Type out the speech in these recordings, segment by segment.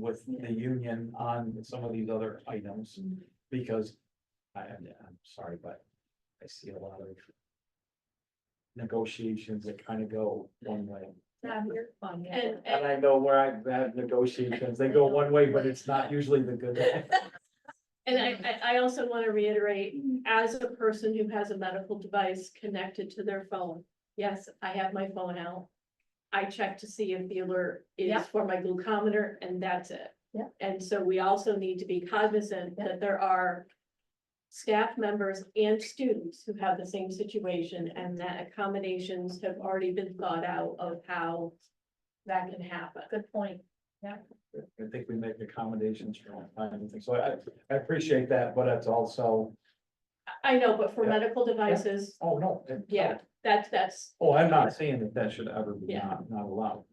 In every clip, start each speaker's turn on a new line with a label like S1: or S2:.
S1: with the union on some of these other items, because I am, I'm sorry, but I see a lot of negotiations that kind of go one way.
S2: Not your fun.
S3: And,
S1: And
S3: and,
S1: I know where I've had negotiations, they go one way, but it's not usually the good way.
S3: and
S2: Mm.
S3: I, I, I also want to reiterate, as a person who has a medical device connected to their phone, yes, I have my phone out. I check to see if the alert
S2: Yeah.
S3: is for my glucometer and that's it.
S2: Yeah.
S3: And so we also need to be cognizant that there are staff members and students who have the same situation and that accommodations have already been thought out of how that can happen.
S2: Good point.
S1: I think we make accommodations for all kinds of things, so I, I appreciate that, but it's also,
S3: I- I know, but for
S1: Yeah.
S3: medical devices,
S1: oh, no. it-
S3: Yeah. that's, that's
S1: Oh, I'm not saying that that should ever be
S3: Yeah.
S1: not, not allowed.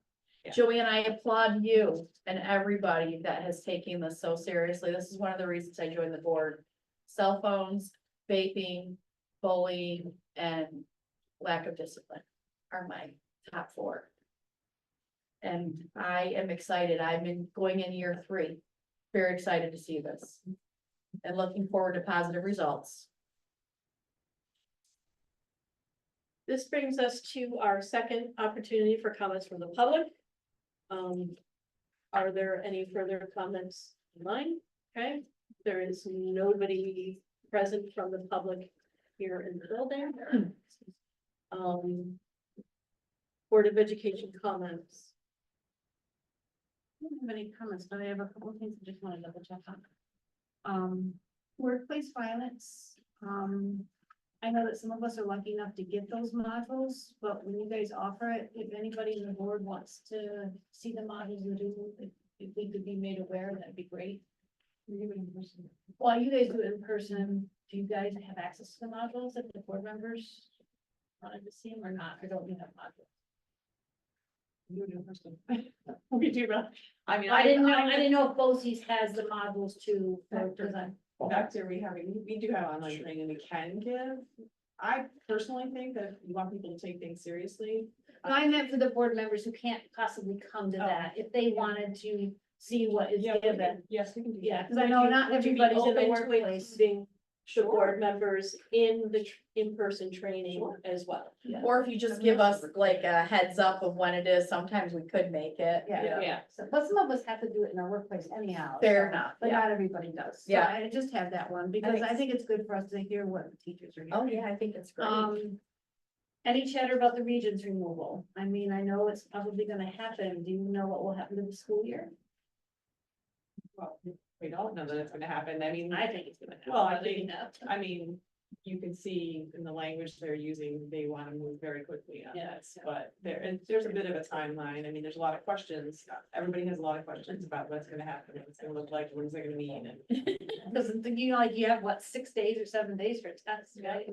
S3: Yeah.
S2: Joey and I applaud you and everybody that has taken this so seriously. This is one of the reasons I joined the board. Cell phones, vaping, bullying, and lack of discipline are my top four. And I am excited. I'm in, going in year three. Very excited to see this. And looking forward to positive results.
S3: This brings us to our second opportunity for comments from the public. Um, are there any further comments in line? Okay, there is nobody present from the public here in the building. Um, Board of Education comments.
S4: I don't have any comments, but I have a couple of things I just want to double check on. Um, workplace violence, um, I know that some of us are lucky enough to get those modules, but when you guys offer it, if anybody in the board wants to see the modules you do, if- if we could be made aware, that'd be great. We do it in person. While you guys do it in person, do you guys have access to the modules if the board members wanted to see them or not, or don't you have modules? You do in person. We do, right?
S5: I mean,
S4: I didn't know, I didn't
S5: didn't.
S4: know if BOSI's has the modules too. for
S5: Factor.
S4: design.
S5: Back to rehabbing, we do have online training we can give. I personally think that if you want people to take things seriously.
S4: No, I meant for the board members who can't possibly come to
S5: Uh, Oh.
S4: that, if they wanted to see what is
S5: Yeah, we
S4: given.
S5: can- Yes, we can do that.
S4: Yeah, cause I know not
S3: Would you be
S4: everybody's in the
S3: open to
S4: workplace.
S3: including The board members in the tr- in-person training
S5: Sure.
S3: as well.
S4: Yeah.
S2: Or if you just give us like a heads up of when it is, sometimes we could make it.
S4: Yeah,
S3: Yeah.
S4: so, but some of us have to do it in our workplace anyhow.
S2: Fair
S4: so-
S2: enough,
S4: But
S2: yeah.
S4: not everybody does. So
S2: Yeah.
S4: I just had that one, because
S2: think
S4: I
S2: s-
S4: think it's good for us to hear what the teachers are
S2: Oh,
S4: hearing.
S2: yeah, I think it's great.
S4: Um, any chatter about the regions removal? I mean, I know it's probably gonna happen. Do you know what will happen to the school year?
S5: Well, We don't know that it's gonna happen, I mean,
S4: I think it's gonna happen.
S5: Well, I
S4: I'll leave
S5: think-
S4: it up.
S5: I mean, you can see in the language they're using, they wanna move very quickly on
S4: Yeah.
S5: this, but there, and there's a bit of a timeline, I mean, there's a lot of questions. Everybody has a lot of questions about what's gonna happen, what it's gonna look like, when's it gonna mean, and
S4: Because you know, like you have what, six days or seven days for tests, right?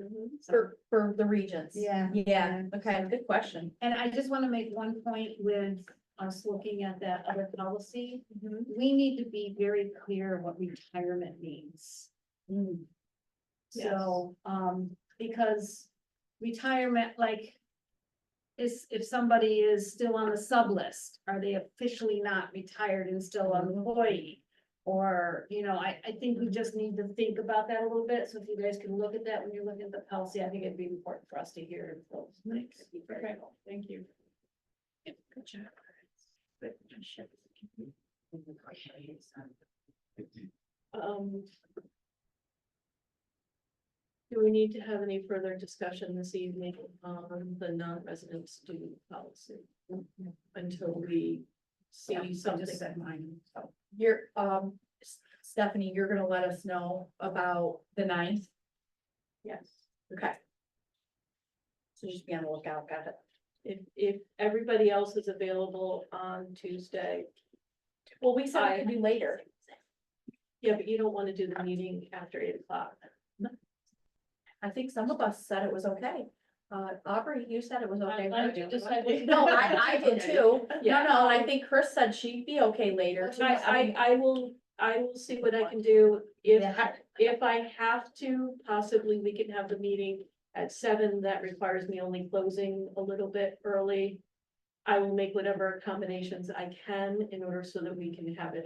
S2: For, for the regions.
S4: Yeah,
S2: Yeah,
S4: yeah.
S2: okay, good question.
S4: And I just want to make one point with us looking at that other policy. We need to be very clear what retirement means.
S2: Mm,
S4: So, um, because retirement, like. Is, if somebody is still on the sub list, are they officially not retired and still an employee? Or, you know, I, I think we just need to think about that a little bit, so if you guys can look at that when you're looking at the policy, I think it'd be important for us to hear those things.
S5: Okay, thank you.
S4: Good job.
S3: Um. Do we need to have any further discussion this evening on the non-resident student policy? Until we see something.
S2: You're, um, S- Stephanie, you're gonna let us know about the ninth?
S3: Yes,
S2: Okay. So just be on the lookout, got it.
S3: if, if everybody else is available on Tuesday,
S2: Well, we
S3: said we
S2: could do later.
S3: yeah, but you don't want to do the meeting after eight o'clock.
S2: I think some of us said it was okay. Uh, Aubrey, you said it was okay.
S4: glad
S2: right?
S4: you decided.
S2: Okay. No, I, I did too. No,
S3: Yeah. Um,
S2: no, and I think Chris said she'd be okay later. too.
S3: I, I, I will, I will see what I can do. If,
S2: Yeah.
S3: if I have to, possibly we can have the meeting at seven. That requires me only closing a little bit early. I will make whatever accommodations I can in order so that we can have it as